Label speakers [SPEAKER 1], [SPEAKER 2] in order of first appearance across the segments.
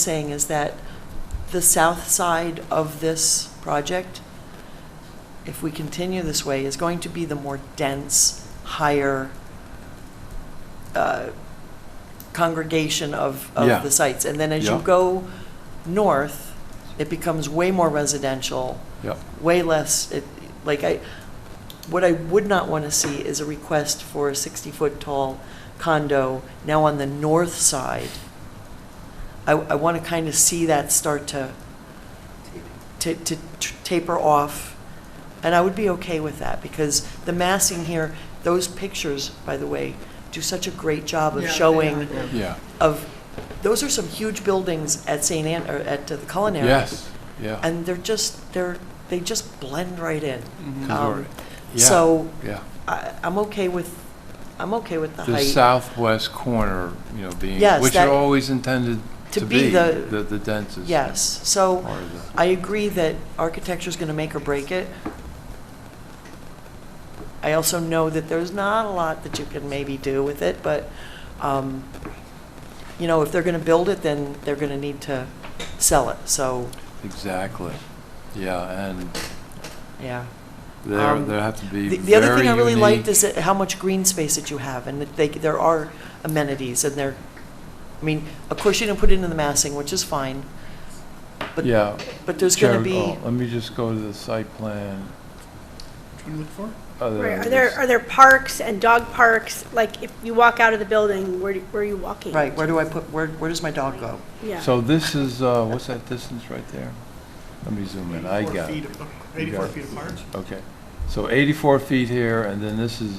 [SPEAKER 1] saying is that the south side of this project, if we continue this way, is going to be the more dense, higher uh, congregation of,
[SPEAKER 2] Yeah.
[SPEAKER 1] of the sites. And then as you
[SPEAKER 2] Yeah.
[SPEAKER 1] go north, it becomes way more residential,
[SPEAKER 2] Yep.
[SPEAKER 1] way less, it- like I, what I would not want to see is a request for a 60-foot tall condo now on the north side. I, I want to kind of see that start to, to, to t- taper off. And I would be okay with that because the massing here, those pictures, by the way, do such a great job of
[SPEAKER 3] Yeah, they
[SPEAKER 1] showing
[SPEAKER 3] are, yeah.
[SPEAKER 2] Yeah,
[SPEAKER 1] of, those are some huge buildings at St. Anne, or at the Culinary.
[SPEAKER 2] yes, yeah.
[SPEAKER 1] And they're just, they're, they just blend right in.
[SPEAKER 2] Cause
[SPEAKER 1] Um,
[SPEAKER 2] we're- yeah,
[SPEAKER 1] So
[SPEAKER 2] Yeah,
[SPEAKER 1] I, I'm okay with, I'm okay with the
[SPEAKER 2] the
[SPEAKER 1] height.
[SPEAKER 2] southwest corner, you know, being,
[SPEAKER 1] Yes,
[SPEAKER 2] which
[SPEAKER 1] that-
[SPEAKER 2] are always intended
[SPEAKER 1] to
[SPEAKER 2] to
[SPEAKER 1] be
[SPEAKER 2] be
[SPEAKER 1] the-
[SPEAKER 2] the, the densest.
[SPEAKER 1] Yes, so
[SPEAKER 2] part of the-
[SPEAKER 1] I agree that architecture's gonna make or break it. I also know that there's not a lot that you can maybe do with it, but, um, you know, if they're gonna build it, then they're gonna need to sell it, so,
[SPEAKER 2] Exactly, yeah, and
[SPEAKER 1] yeah.
[SPEAKER 2] there,
[SPEAKER 1] Um,
[SPEAKER 2] there have to be
[SPEAKER 1] The
[SPEAKER 2] very unique.
[SPEAKER 1] the other thing I really liked is that how much green space that you have, and that they, there are amenities, and they're, I mean, of course, you didn't put it in the massing, which is fine, but,
[SPEAKER 2] Yeah.
[SPEAKER 1] but there's gonna
[SPEAKER 2] Jared,
[SPEAKER 1] be,
[SPEAKER 2] oh, Let me just go to the site plan.
[SPEAKER 3] Trying to look for?
[SPEAKER 2] Oh, there
[SPEAKER 1] Um,
[SPEAKER 4] Right,
[SPEAKER 2] it
[SPEAKER 4] are there,
[SPEAKER 2] is.
[SPEAKER 4] are there parks and dog parks, like, if you walk out of the building, where, do- where are you
[SPEAKER 2] Oh.
[SPEAKER 4] walking?
[SPEAKER 1] right, where do I put, where, where does my dog go?
[SPEAKER 4] Yeah.
[SPEAKER 2] So this is, uh, what's that distance right there? Let me zoom in, I got it. got
[SPEAKER 3] Eighty-four
[SPEAKER 2] it.
[SPEAKER 3] feet apart.
[SPEAKER 2] Okay, so 84 feet here, and then this is,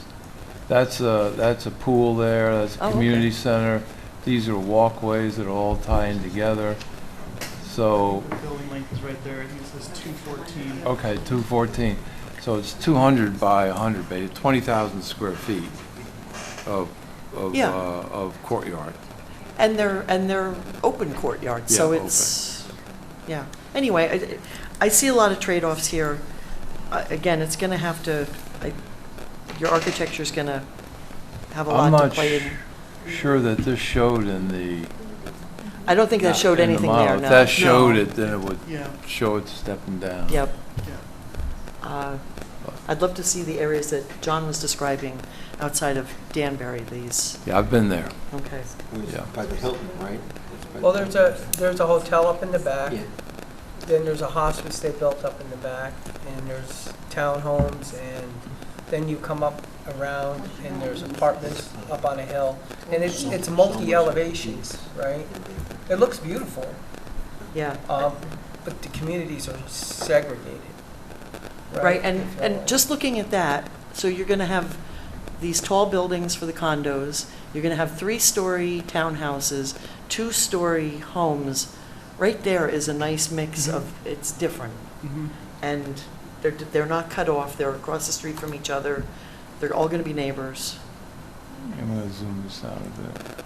[SPEAKER 2] that's a, that's a pool there, that's
[SPEAKER 1] Oh,
[SPEAKER 2] a
[SPEAKER 1] okay.
[SPEAKER 2] community center. These are walkways that are all tying together. So,
[SPEAKER 3] Building length is right there, I think it says two fourteen.
[SPEAKER 2] okay, 214. So it's 200 by 100, ba- 20,000 square feet of, of,
[SPEAKER 1] Yeah.
[SPEAKER 2] uh, of courtyard.
[SPEAKER 1] And they're, and they're open courtyards, so
[SPEAKER 2] Yeah,
[SPEAKER 1] it's, yeah. Anyway, I, I see a lot of trade-offs here. Uh, Again, it's gonna have to, I, your architecture's gonna have a
[SPEAKER 2] I'm
[SPEAKER 1] lot to
[SPEAKER 2] not
[SPEAKER 1] play in.
[SPEAKER 2] sure that this showed in the.
[SPEAKER 1] I don't think that showed
[SPEAKER 2] in the
[SPEAKER 1] anything
[SPEAKER 2] model.
[SPEAKER 1] there,
[SPEAKER 2] If
[SPEAKER 1] no.
[SPEAKER 2] that showed
[SPEAKER 3] No.
[SPEAKER 2] it, then it would
[SPEAKER 3] Yeah,
[SPEAKER 2] show it stepping down.
[SPEAKER 1] Yep.
[SPEAKER 3] yeah.
[SPEAKER 1] Uh, I'd love to see the areas that John was describing outside of Danbury, these,
[SPEAKER 2] Yeah, I've been there,
[SPEAKER 1] okay.
[SPEAKER 2] yeah.
[SPEAKER 5] By the Hilton, right?
[SPEAKER 6] Well, there's a, there's a hotel up in the back,
[SPEAKER 5] Yeah.
[SPEAKER 6] then there's a hospice they built up in the back, and there's townhomes, and then you come up around, and there's apartments up on a hill, and it's, it's multi-elevations, right? It looks beautiful,
[SPEAKER 1] Yeah.
[SPEAKER 6] um, but the communities are segregated, uh, right?
[SPEAKER 1] Right, and,
[SPEAKER 6] So-
[SPEAKER 1] and just looking at that, so you're gonna have these tall buildings for the condos, you're gonna have three-story townhouses, two-story homes. Right there is a nice mix
[SPEAKER 6] Mm-hmm.
[SPEAKER 1] of, it's different,
[SPEAKER 3] Mhm.
[SPEAKER 1] and they're, they're not cut off, they're across the street from each other, they're all gonna be neighbors.
[SPEAKER 2] I'm gonna zoom this out a bit.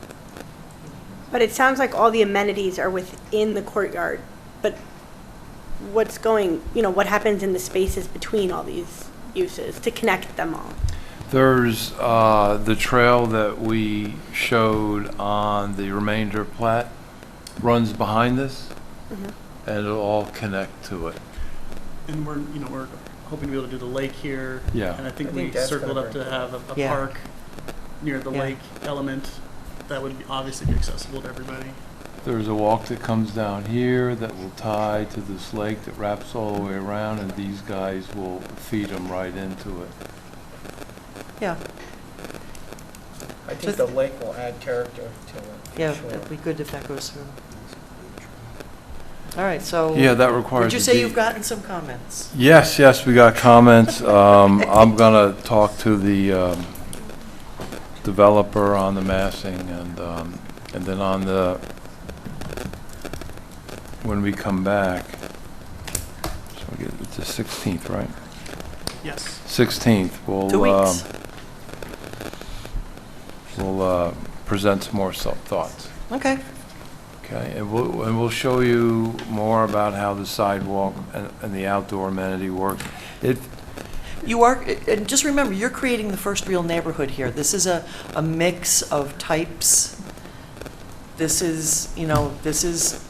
[SPEAKER 4] But it sounds like all the amenities are within the courtyard, but what's going, you know, what happens in the spaces between all these uses to connect them all?
[SPEAKER 2] There's uh, the trail that we showed on the remainder plat runs behind this,
[SPEAKER 1] Mm-hmm.
[SPEAKER 4] Mhm.
[SPEAKER 2] and it'll all connect to it.
[SPEAKER 3] And we're, you know, we're hoping to be able to do the lake here.
[SPEAKER 2] Yeah.
[SPEAKER 3] And I think
[SPEAKER 6] I
[SPEAKER 3] we
[SPEAKER 6] think that's
[SPEAKER 3] circled
[SPEAKER 6] gonna
[SPEAKER 3] up to
[SPEAKER 6] break
[SPEAKER 3] have a, a
[SPEAKER 1] Yeah.
[SPEAKER 3] park near the
[SPEAKER 1] Yeah.
[SPEAKER 3] lake element that would be- obviously be accessible to everybody.
[SPEAKER 2] There's a walk that comes down here that will tie to this lake that wraps all the way around, and these guys will feed them right into it.
[SPEAKER 1] Yeah,
[SPEAKER 6] I think the lake will add character to it. for
[SPEAKER 1] yeah,
[SPEAKER 6] sure.
[SPEAKER 1] it'd be good if that goes through. All right, so.
[SPEAKER 2] Yeah, that
[SPEAKER 1] Would
[SPEAKER 2] requires.
[SPEAKER 1] Oh. you
[SPEAKER 2] a
[SPEAKER 1] say
[SPEAKER 2] deed.
[SPEAKER 1] you've gotten some comments?
[SPEAKER 2] Yes, yes, we got comments. Um, I'm going to talk to the um, developer on the massing and, um, and then on the, when we come back, so we get, it's the 16th, right?
[SPEAKER 3] Yes.
[SPEAKER 2] 16th, we'll.
[SPEAKER 1] Two
[SPEAKER 2] um,
[SPEAKER 1] weeks?
[SPEAKER 2] We'll uh, present some more self thoughts,
[SPEAKER 1] Okay,
[SPEAKER 2] okay? And we'll, and we'll show you more about how the sidewalk and and the outdoor amenity work. It,
[SPEAKER 1] you are, and just remember, you're creating the first real neighborhood here. This is a, a mix of types. This is, you know, this is